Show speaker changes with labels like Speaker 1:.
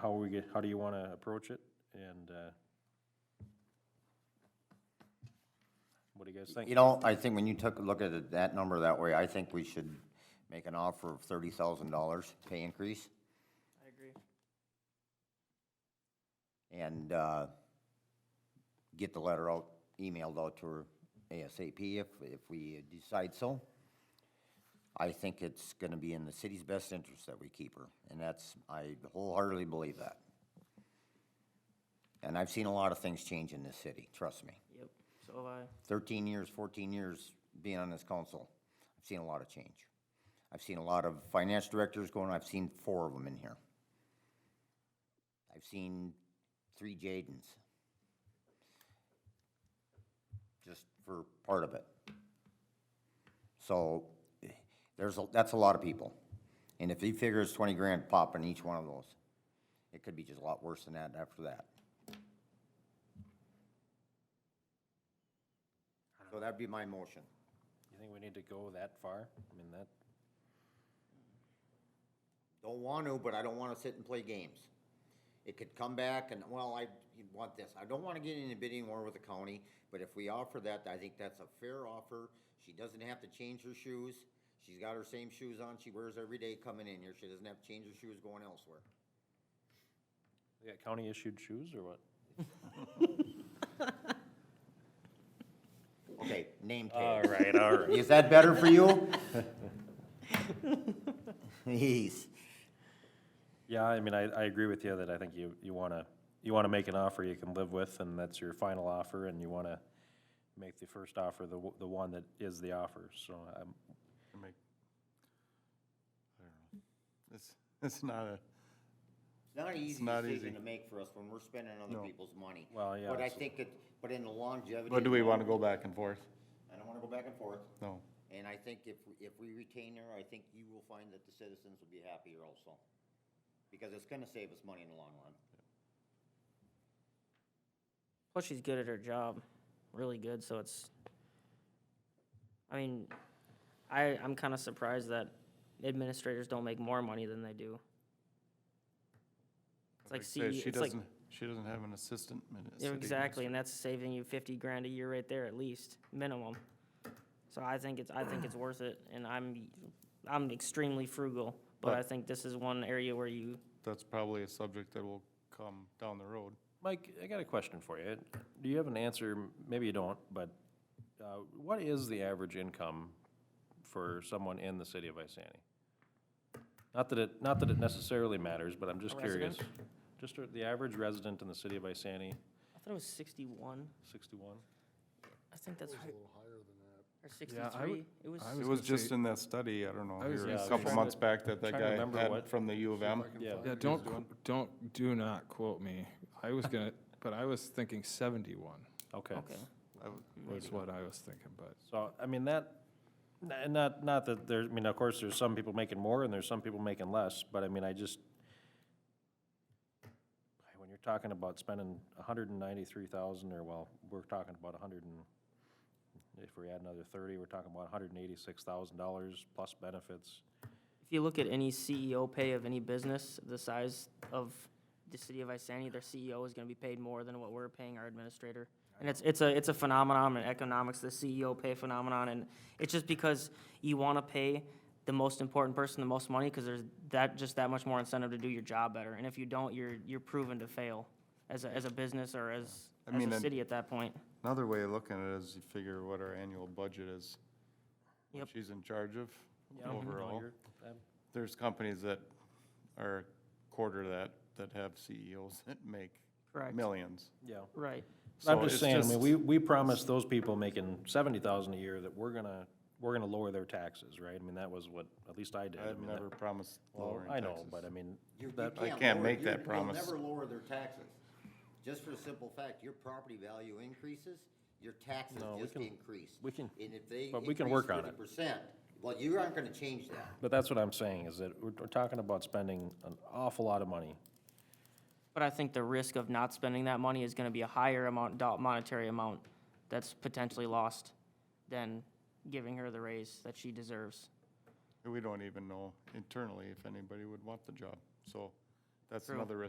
Speaker 1: how we get, how do you want to approach it? And uh, what do you guys think?
Speaker 2: You know, I think when you took a look at it, that number that way, I think we should make an offer of thirty thousand dollars pay increase.
Speaker 3: I agree.
Speaker 2: and uh, get the letter out, emailed out to her ASAP if, if we decide so. I think it's gonna be in the city's best interest that we keep her, and that's, I wholeheartedly believe that. And I've seen a lot of things change in this city, trust me.
Speaker 3: Yep, so have I.
Speaker 2: Thirteen years, fourteen years being on this council, I've seen a lot of change. I've seen a lot of finance directors going, I've seen four of them in here. I've seen three Jadens. Just for part of it. So, eh, there's, a that's a lot of people. And if he figures twenty grand pop in each one of those, it could be just a lot worse than that after that. So that'd be my motion.
Speaker 1: You think we need to go that far? I mean, that,
Speaker 2: Don't want to, but I don't want to sit and play games. It could come back and, well, I want this. I don't want to get in a bidding war with the county, but if we offer that, I think that's a fair offer. She doesn't have to change her shoes. She's got her same shoes on she wears every day coming in here. She doesn't have to change her shoes going elsewhere.
Speaker 1: they got county issued shoes or what?
Speaker 2: Okay, name
Speaker 1: All
Speaker 2: tag.
Speaker 1: right, all right.
Speaker 2: Is that better for you? Please.
Speaker 1: Yeah, I mean, I, I agree with you that I think you, you want to, you want to make an offer you can live with, and that's your final offer, and you want to make the first offer the, w- the one that is the offer, so um, I'm,
Speaker 4: Make, I don't know. It's, it's not a,
Speaker 2: Not an easy
Speaker 4: not
Speaker 2: decision
Speaker 4: easy.
Speaker 2: to make for us when we're spending other people's money.
Speaker 1: Well, yeah,
Speaker 2: But I
Speaker 1: it's-
Speaker 2: think it, but in the longevity.
Speaker 4: but do we want to go back and forth?
Speaker 2: I don't want to go back and forth.
Speaker 4: No.
Speaker 2: And I think if, we- if we retain her, I think you will find that the citizens will be happier also. Because it's gonna save us money in the long run.
Speaker 3: Plus, she's good at her job, really good. So it's, I mean, I I'm kind of surprised that administrators don't make more money than they do. It's like
Speaker 4: I say,
Speaker 3: CEO
Speaker 4: She
Speaker 3: it's like
Speaker 4: doesn't, she doesn't have an assistant. min-
Speaker 3: yeah,
Speaker 4: city
Speaker 3: exactly,
Speaker 4: administrator.
Speaker 3: and that's saving you fifty grand a year right there at least minimum. So I think it's I think it's worth it, and I'm I'm extremely frugal, but I
Speaker 4: But-
Speaker 3: think this is one area where you
Speaker 4: That's probably a subject that will come down the road.
Speaker 1: Mike, I got a question for you. Do you have an answer? Maybe you don't, but uh, what is the average income for someone in the city of Isani? Not that it, not that it necessarily matters, but I'm just
Speaker 3: A
Speaker 1: curious.
Speaker 3: resident?
Speaker 1: Just uh, the average resident in the city of Isani,
Speaker 3: I thought it was sixty one.
Speaker 1: sixty-one?
Speaker 3: I think that's right. Or
Speaker 5: Yeah, I
Speaker 3: sixty-three,
Speaker 5: would-
Speaker 3: it was,
Speaker 5: I
Speaker 4: It
Speaker 5: was
Speaker 4: was
Speaker 5: gonna
Speaker 4: just
Speaker 5: say-
Speaker 4: in that study, I don't know,
Speaker 5: I was
Speaker 4: here
Speaker 1: gonna
Speaker 4: a
Speaker 1: say-
Speaker 4: couple
Speaker 1: Trying
Speaker 4: months
Speaker 1: to-
Speaker 4: back that that
Speaker 1: trying to
Speaker 4: guy
Speaker 1: remember
Speaker 4: had
Speaker 1: what-
Speaker 4: from the U of M.
Speaker 1: Yeah.
Speaker 5: Yeah, don't, qu- don't, do not quote me. I was gonna, but I was thinking seventy-one
Speaker 1: Okay.
Speaker 3: okay.
Speaker 4: I w-
Speaker 5: was what I was thinking, but
Speaker 1: So, I mean, that, and not, not that there, I mean, of course, there's some people making more and there's some people making less, but I mean, I just, when you're talking about spending a hundred and ninety-three thousand, or well, we're talking about a hundred and, if we add another thirty, we're talking about hundred and eighty-six thousand dollars plus benefits.
Speaker 3: If you look at any CEO pay of any business, the size of the city of Isani, their CEO is gonna be paid more than what we're paying our administrator. And it's, it's a, it's a phenomenon in economics, the CEO pay phenomenon, and it's just because you wanna pay the most important person the most money, cause there's that, just that much more incentive to do your job better, and if you don't, you're, you're proven to fail as a, as a business or as,
Speaker 4: I
Speaker 3: as
Speaker 4: mean,
Speaker 3: a
Speaker 4: and-
Speaker 3: city at that point.
Speaker 4: Another way of looking at it is you figure what our annual budget is. what
Speaker 3: Yep.
Speaker 4: She's in charge of
Speaker 1: No,
Speaker 4: overall.
Speaker 1: you're- um, I'm-
Speaker 4: There's companies that are quarter that, that have CEOs that make
Speaker 3: Correct.
Speaker 4: millions.
Speaker 1: Yeah.
Speaker 3: Right.
Speaker 1: I'm
Speaker 4: So
Speaker 1: just
Speaker 4: it's
Speaker 1: saying, I mean,
Speaker 4: just-
Speaker 1: we, we promised those people making seventy thousand a year that we're gonna, we're gonna lower their taxes, right? I mean, that was what, at least I did. I
Speaker 4: I've
Speaker 1: mean, that-
Speaker 4: never promised
Speaker 1: Well,
Speaker 4: lowering
Speaker 1: I
Speaker 4: taxes.
Speaker 1: know, but I mean,
Speaker 2: You- you
Speaker 1: that,
Speaker 4: I can't
Speaker 2: lower-
Speaker 4: make
Speaker 2: you-
Speaker 4: that
Speaker 2: you'll
Speaker 4: promise.
Speaker 2: never lower their taxes, just for the simple fact, your property value increases, your taxes
Speaker 1: No, we
Speaker 2: just
Speaker 1: can-
Speaker 2: increase.
Speaker 1: we can-
Speaker 2: And if they
Speaker 1: but we can
Speaker 2: increase
Speaker 1: work on it.
Speaker 2: 50%, well, you aren't gonna change that.
Speaker 1: but that's what I'm saying, is that we're, we're talking about spending an awful lot of money.
Speaker 3: But I think the risk of not spending that money is gonna be a higher amount, do- monetary amount that's potentially lost than giving her the raise that she deserves.
Speaker 4: We don't even know internally if anybody would want the job, so that's
Speaker 3: True.
Speaker 4: another risk